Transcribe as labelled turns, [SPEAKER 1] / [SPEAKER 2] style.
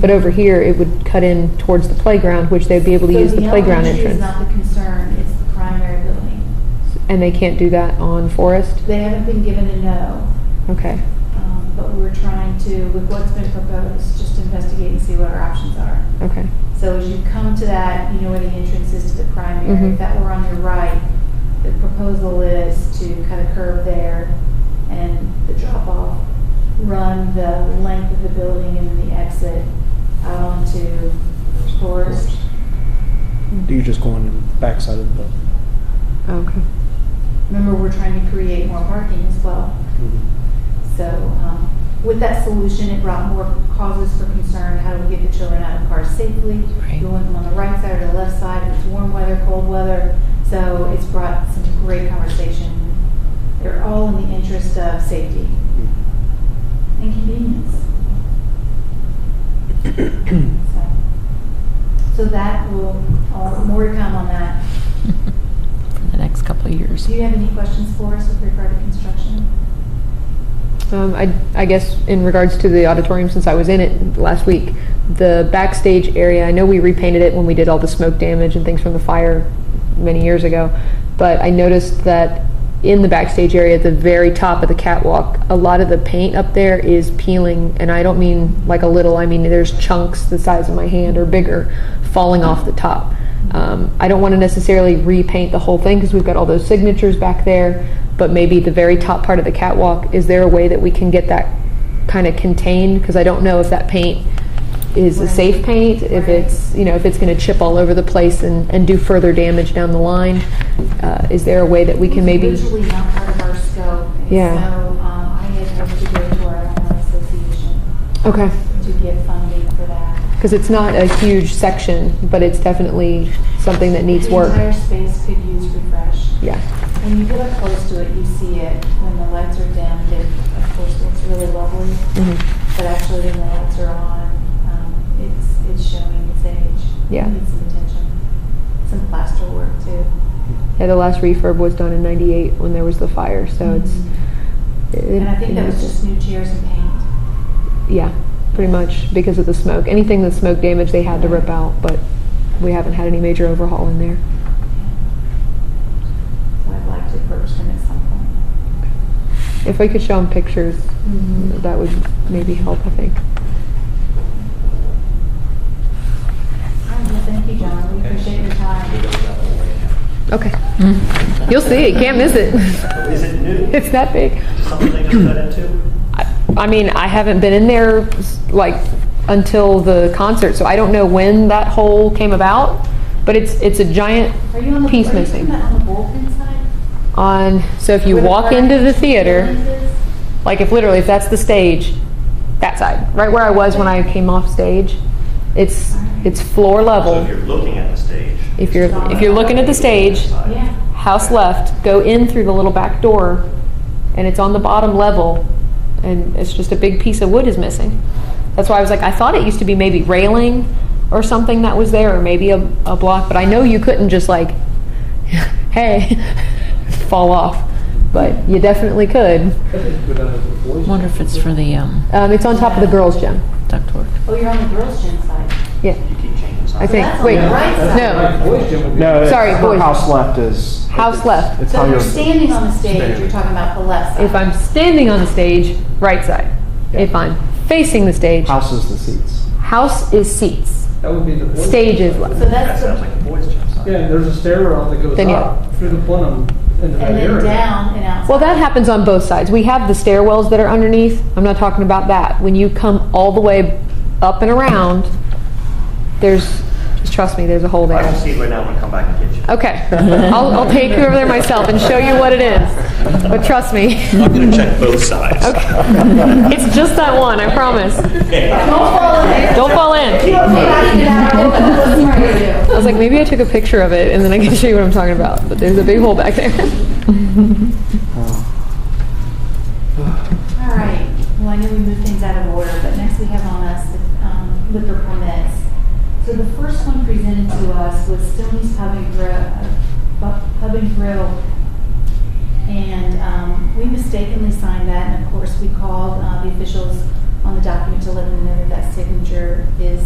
[SPEAKER 1] But over here, it would cut in towards the playground, which they'd be able to
[SPEAKER 2] So
[SPEAKER 1] use the playground
[SPEAKER 2] elementary
[SPEAKER 1] entrance.
[SPEAKER 2] is not the concern, it's the primary building.
[SPEAKER 1] And they can't do that on Forest?
[SPEAKER 2] They haven't been given a no,
[SPEAKER 1] Okay,
[SPEAKER 2] um, but we're trying to, with what's been proposed, just investigate and see what our options are.
[SPEAKER 1] okay.
[SPEAKER 2] So as you come to that, you know where the entrance is to the primary.
[SPEAKER 1] Mhm.
[SPEAKER 2] If that were on your right, the proposal is to cut a curve there and the drop off, run the length of the building and then the exit out onto Forest.
[SPEAKER 3] You're just going in the backside of the building.
[SPEAKER 1] Okay.
[SPEAKER 2] Remember, we're trying to create more parking as well. So um, with that solution, it brought more causes for concern. How do we get the children out of cars safely?
[SPEAKER 4] Right.
[SPEAKER 2] Do we want them on the right side or the left side? If it's warm weather, cold weather. So it's brought some great conversation. They're all in the interest of safety and convenience. So- So that will, all- more to come on that.
[SPEAKER 4] for the next couple of years.
[SPEAKER 2] Do you have any questions for us with regard to construction?
[SPEAKER 1] Um, I, I guess in regards to the auditorium, since I was in it last week, the backstage area, I know we repainted it when we did all the smoke damage and things from the fire many years ago, but I noticed that in the backstage area, at the very top of the catwalk, a lot of the paint up there is peeling, and I don't mean like a little, I mean there's chunks the size of my hand or bigger falling off the top. Um, I don't want to necessarily repaint the whole thing because we've got all those signatures back there, but maybe the very top part of the catwalk, is there a way that we can get that kind of contained? Because I don't know if that paint is a
[SPEAKER 2] Right.
[SPEAKER 1] safe paint, if
[SPEAKER 2] Right.
[SPEAKER 1] it's, you know, if it's going to chip all over the place and, and do further damage down the line. Uh, Is there a way that we can maybe?
[SPEAKER 2] It's originally not part of our scope. and
[SPEAKER 1] Yeah.
[SPEAKER 2] So um, I had hoped to go to our alumni association
[SPEAKER 1] Okay,
[SPEAKER 2] to get funding for that.
[SPEAKER 1] because it's not a huge section, but it's definitely something that needs
[SPEAKER 2] The entire
[SPEAKER 1] work.
[SPEAKER 2] space could use refresh.
[SPEAKER 1] Yeah,
[SPEAKER 2] When you get up close to it, you see it. When the lights are dimmed, it, of course, looks really lovely.
[SPEAKER 1] Mhm.
[SPEAKER 2] But actually, when the lights are on, um, it's, it's showing its age.
[SPEAKER 1] Yeah.
[SPEAKER 2] It Needs some attention. Some plaster work too.
[SPEAKER 1] yeah, the last refurb was done in ninety-eight when there was the fire, so it's. it-
[SPEAKER 2] Mm-hmm. And I think that was just new chairs and paint.
[SPEAKER 1] Yeah, pretty much because of the smoke. Anything that's smoke damage, they had to rip out, but we haven't had any major overhaul in there.
[SPEAKER 2] So I'd like to approach them at some point.
[SPEAKER 1] If we could show them pictures,
[SPEAKER 2] Mm-hmm.
[SPEAKER 1] that would maybe help, I think.
[SPEAKER 2] All right, well, thank you, John. We appreciate your time.
[SPEAKER 1] Okay. You'll see, can't miss it.
[SPEAKER 5] Is it new?
[SPEAKER 1] It's that big.
[SPEAKER 5] Something they just got into?
[SPEAKER 1] I mean, I haven't been in there like until the concert, so I don't know when that hole came about, but it's, it's a giant
[SPEAKER 2] Are you on the, are you
[SPEAKER 1] piece
[SPEAKER 2] talking
[SPEAKER 1] missing.
[SPEAKER 2] about on the bullpen side?
[SPEAKER 1] On, so if you
[SPEAKER 2] Where the
[SPEAKER 1] walk
[SPEAKER 2] flag
[SPEAKER 1] into the theater,
[SPEAKER 2] is?
[SPEAKER 1] Like if literally if that's the stage, that side, right where I was when I came off stage, it's it's floor
[SPEAKER 5] So if
[SPEAKER 1] level.
[SPEAKER 5] you're looking at the stage.
[SPEAKER 1] If you're if you're looking at the stage,
[SPEAKER 2] Yeah.
[SPEAKER 1] house left, go in through the little back door, and it's on the bottom level, and it's just a big piece of wood is missing. That's why I was like, I thought it used to be maybe railing or something that was there, or maybe a, a block, but I know you couldn't just like, hey, fall off, but you definitely could.
[SPEAKER 4] Wonder if it's for the um,
[SPEAKER 1] Um, it's on top of the girls' gym.
[SPEAKER 4] ductwork.
[SPEAKER 2] Oh, you're on the girls' gym side.
[SPEAKER 1] Yeah.
[SPEAKER 5] You keep changing
[SPEAKER 1] I
[SPEAKER 5] sides.
[SPEAKER 1] think.
[SPEAKER 2] That's on
[SPEAKER 1] Wait,
[SPEAKER 2] the right side.
[SPEAKER 1] no.
[SPEAKER 3] No, it's-
[SPEAKER 1] Sorry,
[SPEAKER 3] her
[SPEAKER 1] boys.
[SPEAKER 3] house left is.
[SPEAKER 1] House
[SPEAKER 3] it's-
[SPEAKER 1] left.
[SPEAKER 3] It's
[SPEAKER 2] So
[SPEAKER 3] how
[SPEAKER 2] if you're
[SPEAKER 3] you're.
[SPEAKER 2] standing on the stage,
[SPEAKER 3] Standing.
[SPEAKER 2] you're talking about the left side.
[SPEAKER 1] If I'm standing on the stage, right side. If I'm facing the stage,
[SPEAKER 3] House is the seats.
[SPEAKER 1] house is seats.
[SPEAKER 6] That would be the boys'
[SPEAKER 1] Stage is
[SPEAKER 6] gym.
[SPEAKER 1] left.
[SPEAKER 2] So
[SPEAKER 5] That
[SPEAKER 2] that's,
[SPEAKER 5] sounds
[SPEAKER 2] the-
[SPEAKER 5] like a boys' gym side.
[SPEAKER 6] Yeah, there's a stair rail that goes
[SPEAKER 1] Then, yeah.
[SPEAKER 6] up through the plenum into that
[SPEAKER 2] and
[SPEAKER 6] area.
[SPEAKER 2] then down and out.
[SPEAKER 1] Well, that happens on both sides. We have the stairwells that are underneath. I'm not talking about that. When you come all the way up and around, there's, just trust me, there's a hole
[SPEAKER 5] I can
[SPEAKER 1] there.
[SPEAKER 5] see it right now, I'm gonna come back and get you.
[SPEAKER 1] Okay. I'll, I'll take you over there myself and show you what it is. But trust me,
[SPEAKER 5] I'm gonna check both sides.
[SPEAKER 1] it's just that one, I promise.
[SPEAKER 5] Okay.
[SPEAKER 2] Don't fall in there.
[SPEAKER 1] Don't fall
[SPEAKER 2] You
[SPEAKER 1] in.
[SPEAKER 2] don't say how to get out of it, but listen where you
[SPEAKER 1] I
[SPEAKER 2] do.
[SPEAKER 1] was like, maybe I took a picture of it and then I can show you what I'm talking about. But there's a big hole back there.
[SPEAKER 3] Oh.
[SPEAKER 2] All right, well, I know we moved things out of order, but next we have on us the um, liquor permits. So the first one presented to us was Stoney's Pub and Grill, uh, Bu- Pub and Grill. And um, we mistakenly signed that, and of course, we called uh, the officials on the document to let them know that that signature is